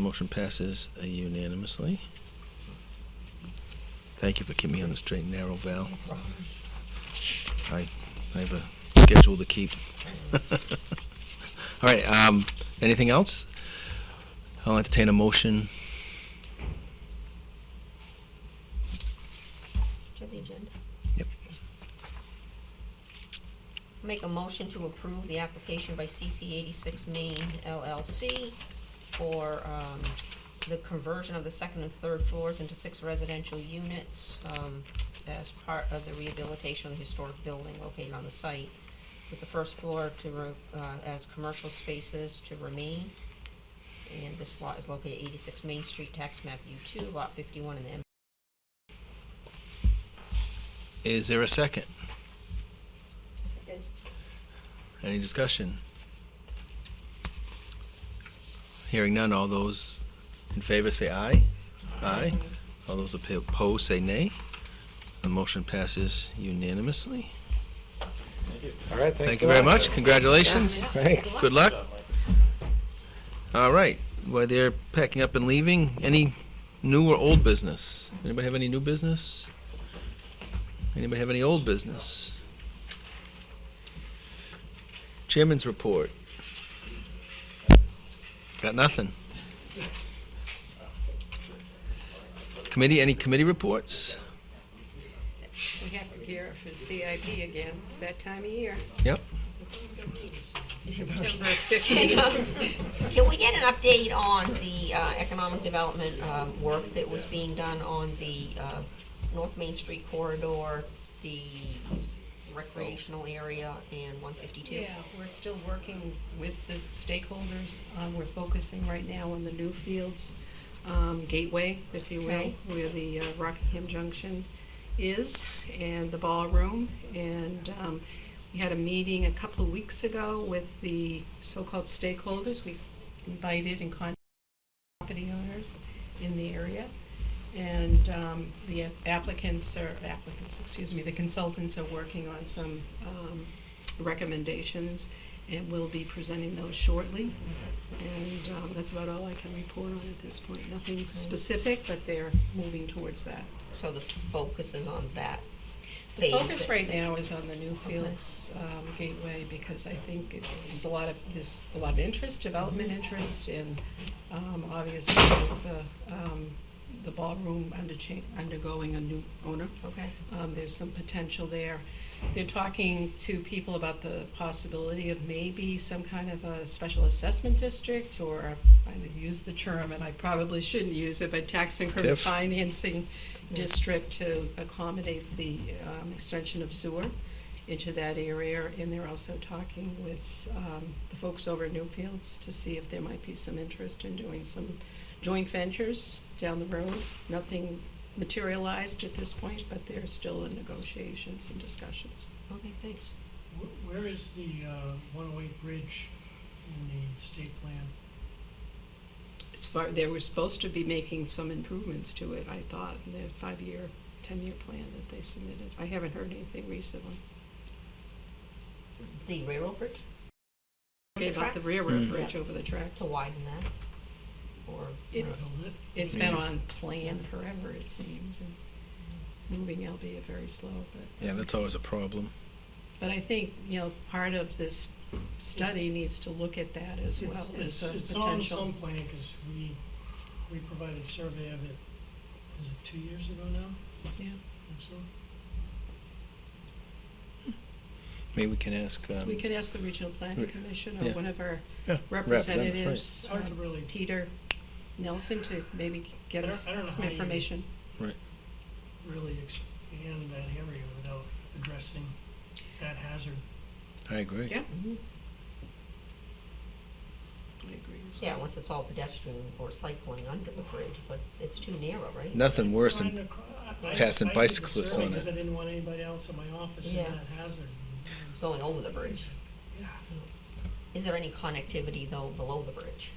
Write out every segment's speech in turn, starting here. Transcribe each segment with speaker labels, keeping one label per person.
Speaker 1: Motion passes unanimously. Thank you for keeping me on the straight and narrow, Val. I, I have a schedule to keep. All right, um, anything else? I'll entertain a motion.
Speaker 2: Do you have the agenda?
Speaker 1: Yep.
Speaker 2: Make a motion to approve the application by CC eighty-six Maine LLC for, um, the conversion of the second and third floors into six residential units, um, as part of the rehabilitation of the historic building located on the site, with the first floor to, re- uh, as commercial spaces to remain. And this lot is located at eighty-six Main Street, tax map U two, lot fifty-one in the M.
Speaker 1: Is there a second? Any discussion? Hearing none, all those in favor say aye. Aye. All those oppo- opposed say nay. The motion passes unanimously.
Speaker 3: All right, thanks.
Speaker 1: Thank you
Speaker 3: a
Speaker 1: very
Speaker 3: lot.
Speaker 1: much. Congratulations.
Speaker 3: Thanks.
Speaker 1: Good luck. All right, while they're packing up and leaving, any new or old business? Anybody have any new business? Anybody have any old business? Chairman's report. Got nothing. Committee, any committee reports?
Speaker 4: We have to gear up for CIP again. It's that time of year.
Speaker 1: Yep.
Speaker 4: September fifteenth.
Speaker 2: Can we get an update on the uh, economic development um, work that was being done on the uh, North Main Street corridor, the recreational area, and one fifty-two?
Speaker 4: Yeah, we're still working with the stakeholders. Um, we're focusing right now on the new fields, um, gateway, if you will,
Speaker 2: Okay.
Speaker 4: where the uh, Rockingham Junction is, and the ballroom. And, um, we had a meeting a couple of weeks ago with the so-called stakeholders. We invited and contacted property owners in the area. And um, the applicants are, applicants, excuse me, the consultants are working on some um, recommendations, and we'll be presenting those shortly. And um, that's about all I can report on at this point. Nothing specific, but they're moving towards that.
Speaker 2: So the focus is on that
Speaker 4: The
Speaker 2: phase.
Speaker 4: focus right now is on the Newfields um, Gateway, because I think it- there's a lot of, there's a lot of interest, development interest, and um, obviously with the, um, the ballroom under cha- undergoing a new owner,
Speaker 2: Okay,
Speaker 4: um, there's some potential there. They're talking to people about the possibility of maybe some kind of a special assessment district, or, I use the term, and I probably shouldn't use it, but tax increment
Speaker 1: Tiff.
Speaker 4: financing district to accommodate the um, extension of sewer into that area, and they're also talking with um, the folks over at Newfields to see if there might be some interest in doing some joint ventures down the road. Nothing materialized at this point, but they're still in negotiations and discussions.
Speaker 2: okay, thanks.
Speaker 5: Wh- Where is the uh, 108 bridge in the state plan?
Speaker 4: As far, they were supposed to be making some improvements to it, I thought, in their five-year, ten-year plan that they submitted. I haven't heard anything recently.
Speaker 2: The railroad bridge,
Speaker 4: Okay, about the
Speaker 2: tracks? Oh,
Speaker 4: railroad
Speaker 1: Mm.
Speaker 4: bridge over the tracks.
Speaker 2: to widen that, or?
Speaker 4: It's,
Speaker 5: Build it?
Speaker 4: it's been on plan forever, it seems, and moving, albeit very slow, but.
Speaker 1: Yeah, that's always a problem.
Speaker 4: But I think, you know, part of this study needs to look at that as well,
Speaker 5: It's-
Speaker 4: as
Speaker 5: it's-
Speaker 4: a
Speaker 5: It's on some
Speaker 4: potential.
Speaker 5: plan, because we, we provided survey of it, is it two years ago now?
Speaker 4: Yeah.
Speaker 5: I think so.
Speaker 1: Maybe we can ask, um,
Speaker 4: We could ask the regional planning commission or
Speaker 1: Yeah.
Speaker 4: one of our
Speaker 1: Yeah.
Speaker 4: representatives,
Speaker 5: It's hard to
Speaker 4: um,
Speaker 5: really,
Speaker 4: Peter Nelson, to maybe get
Speaker 5: I don't-
Speaker 4: us
Speaker 5: I don't know
Speaker 4: some
Speaker 5: how you-
Speaker 4: information.
Speaker 5: really expand that area without addressing that hazard.
Speaker 1: I agree.
Speaker 4: Yeah.
Speaker 2: Mhm.
Speaker 4: I agree. as
Speaker 2: Yeah, unless it's all pedestrian or cycling under the bridge, but it's too narrow, right?
Speaker 1: Nothing worse
Speaker 5: Trying
Speaker 1: than,
Speaker 5: to cr- I- I-
Speaker 1: passing
Speaker 5: I did the
Speaker 1: bicyclists
Speaker 5: survey
Speaker 1: on it.
Speaker 5: 'cause I didn't want anybody else in my office in
Speaker 2: Yeah.
Speaker 5: that hazard.
Speaker 2: Going over the bridge.
Speaker 5: Yeah.
Speaker 2: Is there any connectivity though below the bridge?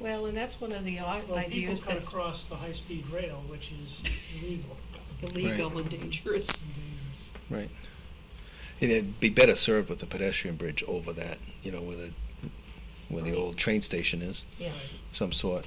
Speaker 4: well. Well, and that's one of the i-
Speaker 5: Well, people
Speaker 4: ideas
Speaker 5: cut
Speaker 4: that's
Speaker 5: across the high-speed rail, which is illegal
Speaker 4: illegal and dangerous.
Speaker 5: and dangerous.
Speaker 1: it'd be better served with a pedestrian bridge over that, you know, where the, where the old train station is.
Speaker 2: Yeah.
Speaker 1: some sort,